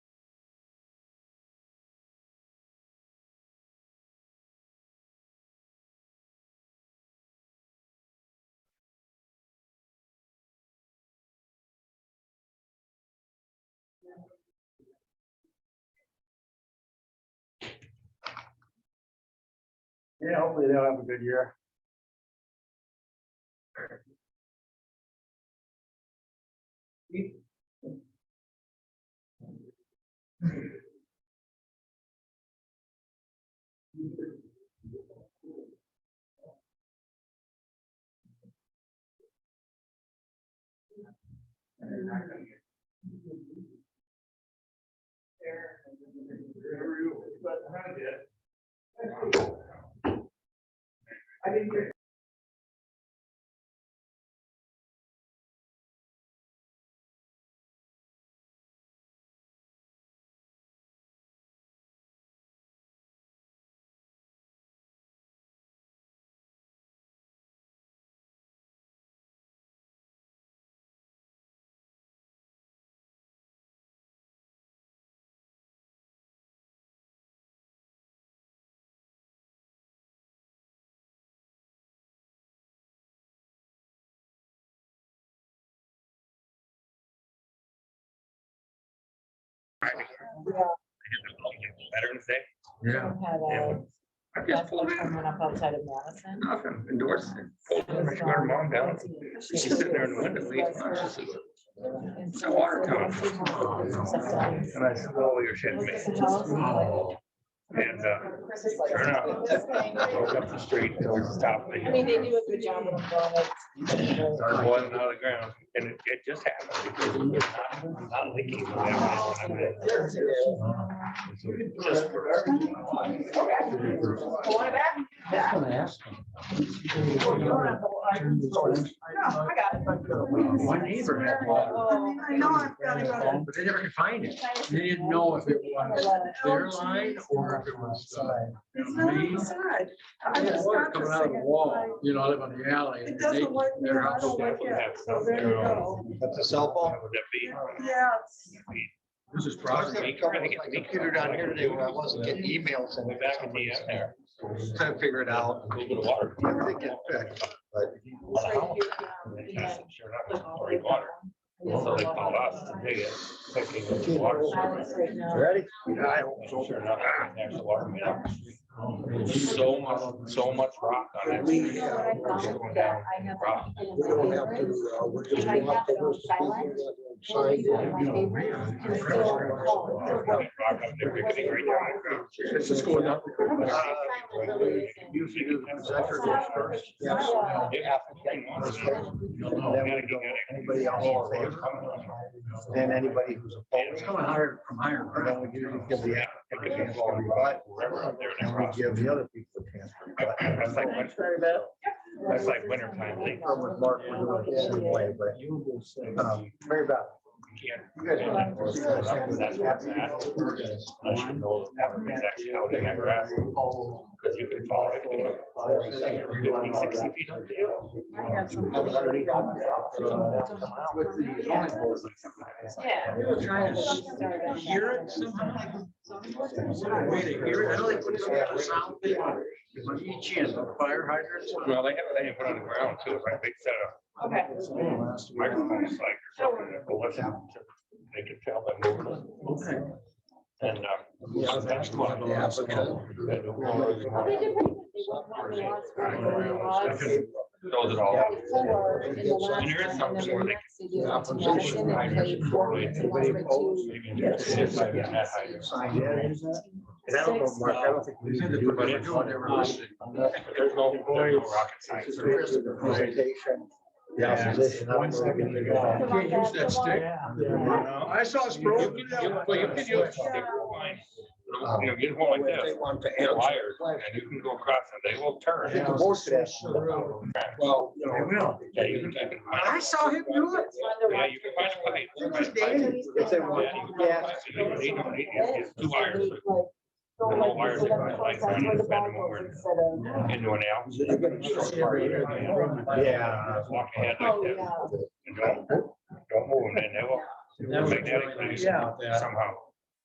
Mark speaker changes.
Speaker 1: Yeah, hopefully they'll have a good year. I didn't hear
Speaker 2: Veterans Day.
Speaker 3: Yeah,
Speaker 2: Yeah,
Speaker 4: had
Speaker 2: we-
Speaker 4: a
Speaker 2: I just
Speaker 4: festival
Speaker 2: pulled in,
Speaker 4: coming up outside of Madison.
Speaker 2: nothing, endorsed it. Pulled
Speaker 4: It
Speaker 2: in,
Speaker 4: was
Speaker 2: She got her
Speaker 4: on
Speaker 2: mom down.
Speaker 4: 14th.
Speaker 2: She's sitting there in the window eating. lunch. She says, It's a water tower.
Speaker 4: Sometimes.
Speaker 2: And I said, oh, you're shitting me. And, uh, sure enough, I looked up the street, there was a stop.
Speaker 4: I mean, they do a good job of employment.
Speaker 2: Started boiling out of the ground and it, it just happened because it was not, not leaking. when I went in. Just for-
Speaker 3: that's what I asked him. My neighbor had water,
Speaker 5: I know I've got to go.
Speaker 3: but they never could find it. They didn't know if it was their line or if it was, uh,
Speaker 5: It's not on the side. I
Speaker 3: they had
Speaker 5: just
Speaker 3: water
Speaker 5: got
Speaker 3: coming
Speaker 5: this
Speaker 3: out of
Speaker 5: thing
Speaker 3: the
Speaker 5: and
Speaker 3: wall, you know, live on the alley.
Speaker 5: It
Speaker 3: and they-
Speaker 5: doesn't work.
Speaker 3: Their
Speaker 5: I
Speaker 3: house.
Speaker 5: don't like it. So there you go.
Speaker 6: That's a cell phone?
Speaker 2: Would that be?
Speaker 5: Yeah. it's-
Speaker 3: This is
Speaker 6: I was
Speaker 3: property.
Speaker 6: having trouble with my computer down here today when I wasn't getting emails and
Speaker 2: Way back in the, uh, there.
Speaker 6: trying to figure it out.
Speaker 2: A little bit of water.
Speaker 6: I think it fixed, but
Speaker 2: On the house. And I said, Sure enough, it's already water. So they called us to dig it, thinking it was water. service.
Speaker 6: Ready?
Speaker 2: Yeah, I hope so. Sure enough, there's a water main. So much, so much rock on that. street. Rock.
Speaker 6: We don't have to, uh, we're just. gonna have to listen to
Speaker 2: Rock up there, we could be right there.
Speaker 3: It's just going up.
Speaker 6: Uh,
Speaker 2: Usually do the-
Speaker 3: Is that your first verse?
Speaker 2: Yeah.
Speaker 6: Yes.
Speaker 2: Gotta get it.
Speaker 6: Anybody else in favor? Then anybody who's
Speaker 3: It's
Speaker 6: opposed.
Speaker 3: coming higher from higher
Speaker 6: And
Speaker 3: ground.
Speaker 6: then we usually give the applicant a chance to rebut, and we give the other people a chance to rebut.
Speaker 2: That's like, win- that's like winter time, they
Speaker 6: Or with Mark, we're doing it the same way, but, um, Mary Beth.
Speaker 2: can't.
Speaker 6: you guys are not forced to accept
Speaker 2: That's what's happening.
Speaker 6: that.
Speaker 2: I should know if that was actually out in that grass. Because you can follow it. you know, fifty, sixty feet up the hill.
Speaker 3: With the zoning board.
Speaker 4: Yeah.
Speaker 3: They were trying to hear it somehow. Is there a way to hear it? I know they put some kind of sound thing on each end, the fire hydrants.
Speaker 2: Well, they have, they have put on the ground too, right? They set up
Speaker 4: Okay.
Speaker 2: microphones like or something. that will listen to- They could tell by moving.
Speaker 3: Okay.
Speaker 2: And, um.
Speaker 3: Yeah,
Speaker 2: that's one of the
Speaker 4: Well, they
Speaker 2: applicants.
Speaker 4: did pretty good. They won one loss, but they lost.
Speaker 2: Those are all.
Speaker 4: Four in the last
Speaker 2: And there is
Speaker 4: round, and
Speaker 2: something where
Speaker 4: then
Speaker 2: they
Speaker 4: next they do it to Madison and played four
Speaker 2: Anybody
Speaker 4: games and lost by two.
Speaker 6: Sign in. And I don't know, Mark, I don't think we
Speaker 3: They said
Speaker 6: need to
Speaker 3: that uh,
Speaker 6: do
Speaker 3: what they're
Speaker 6: it.
Speaker 3: doing, they were listening.
Speaker 2: There's no, there's no rocket
Speaker 6: It's
Speaker 2: science.
Speaker 6: just basically the presentation, the
Speaker 3: Yeah.
Speaker 6: opposition. I don't know if we can do
Speaker 3: You
Speaker 6: that.
Speaker 3: can't use that stick. I saw it's
Speaker 2: You
Speaker 3: broken.
Speaker 2: can- you- Well, you can use a stick or line. You know, get one like
Speaker 6: If They
Speaker 2: this,
Speaker 6: want to
Speaker 2: and
Speaker 6: answer.
Speaker 2: wires, and you can go across and they will
Speaker 6: I
Speaker 2: turn.
Speaker 6: think the most of that. Well, you know.
Speaker 2: Yeah, you can- you can find-
Speaker 3: I
Speaker 5: Oh,
Speaker 3: saw him do it.
Speaker 2: Yeah, you can find a pipe. You can find a pipe.
Speaker 6: If they want to gas.
Speaker 2: They don't need it. It's two wires And the wires are going like down and bend them over into an L.
Speaker 6: They're gonna be so far here. Yeah.
Speaker 2: Walk ahead
Speaker 4: Oh,
Speaker 2: like this.
Speaker 4: yeah.
Speaker 2: and Don't, don't move them, and they will magnetically
Speaker 3: Yeah.
Speaker 2: somehow.